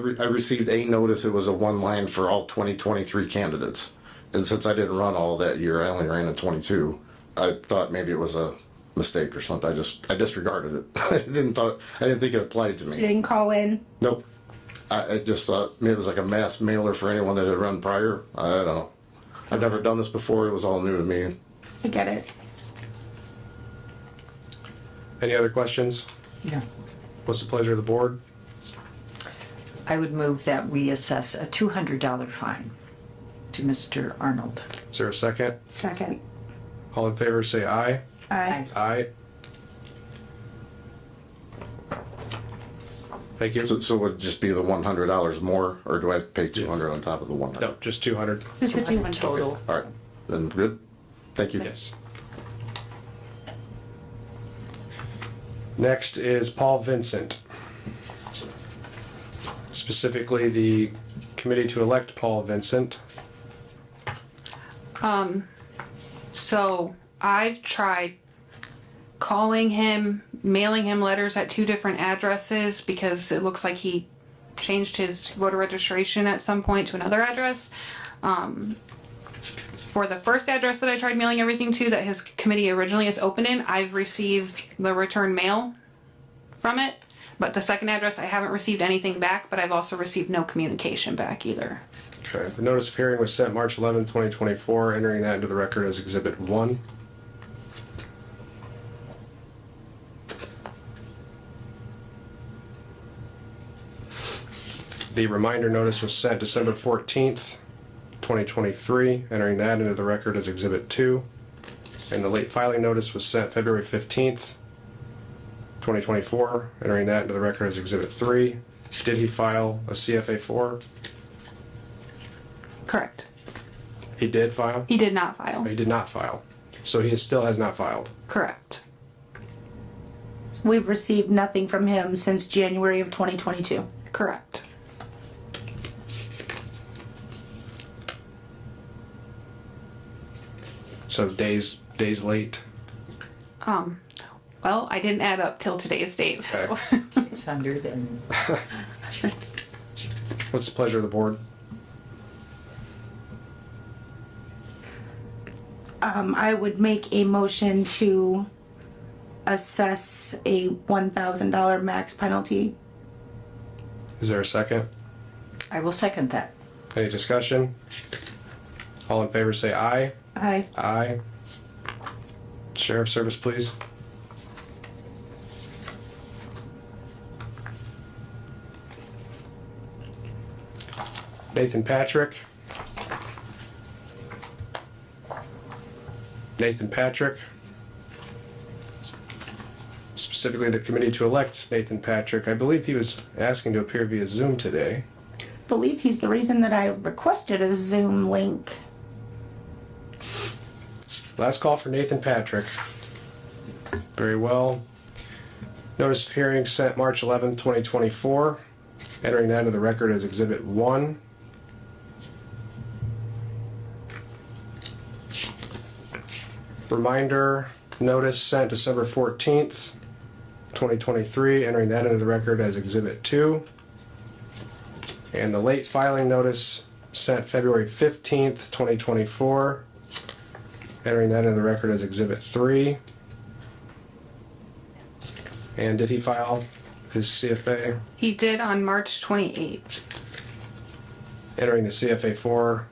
re- I received a notice, it was a one line for all twenty twenty-three candidates. And since I didn't run all that year, I only ran in twenty-two, I thought maybe it was a mistake or something, I just, I disregarded it. I didn't thought, I didn't think it applied to You me, didn't call in. nope. I, I just thought, it was like a mass mailer for anyone that had run prior, I don't know. I've never done this before, it was all new to me. I get it. Any other questions? No. What's the pleasure of the board? I would move that we assess a two hundred dollar fine to Mr. Arnold. Is there a second? Second. All in favor, say aye. Aye. Aye. Thank you. So, so would it just be the one hundred dollars more, or do I have to pay two hundred on top of the one hundred? No, just two hundred. Just the two hundred. Total. All right, then good, thank you. Yes. Next is Paul Vincent. Specifically, the committee to elect Paul Vincent. So I've tried calling him, mailing him letters at two different addresses because it looks like he changed his voter registration at some point to another address. Um, for the first address that I tried mailing everything to that his committee originally is open in, I've received the return mail from it. But the second address, I haven't received anything back, but I've also received no communication back either. Okay, the notice of hearing was sent March eleventh, twenty twenty-four, entering that into the record as exhibit one. The reminder notice was sent December fourteenth, twenty twenty-three, entering that into the record as exhibit two. And the late filing notice was sent February fifteenth, twenty twenty-four, entering that into the record as exhibit three. Did he file a CFA four? Correct. He did file? He did not file. He did not file. So he still has not filed. Correct. We've received nothing from him since January of twenty twenty-two. Correct. So days days late. Um, Well, I didn't add up till today's date. So. Okay. Six hundred and What's the pleasure of the board? Um, I would make a motion to assess a one thousand dollar max penalty. Is there a second? I will second that. Any discussion? All in favor say aye. Aye. Aye. Sheriff Service, please. Nathan Patrick. Nathan Patrick. Specifically, the committee to elect Nathan Patrick. I believe he was asking to appear via Zoom today. Believe he's the reason that I requested a Zoom link. Last call for Nathan Patrick. Very well. Notice of hearing sent March 11th, 2024. Entering that into the record as Exhibit 1. Reminder notice sent December 14th, 2023. Entering that into the record as Exhibit 2. And the late filing notice sent February 15th, 2024 entering that into the record as exhibit three. And did he file his CFA, He did on March 28th. entering the CFA four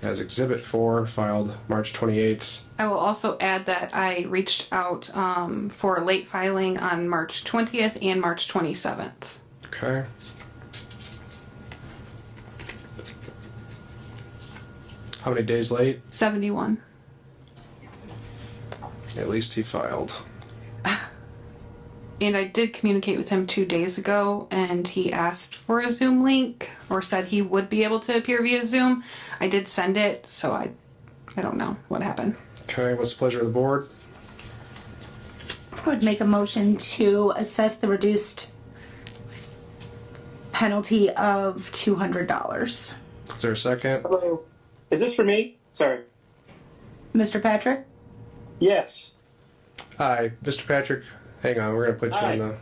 as exhibit four, filed March twenty-eighth? I will also add that I reached out um, for late filing on March 20th and March 27th. Okay. How many days late? 71. At least he filed. And I did communicate with him two days ago, and he asked for a Zoom link or said he would be able to appear via Zoom. I did send it, so I, I don't know what happened. Okay, what's the pleasure of the board? I would make a motion to assess the reduced penalty of two hundred dollars. Is there a second? Hello. Is this for me? Sorry. Mr. Patrick? Yes. Hi, Mr. Patrick. Hang on, we're gonna put you on Hi. the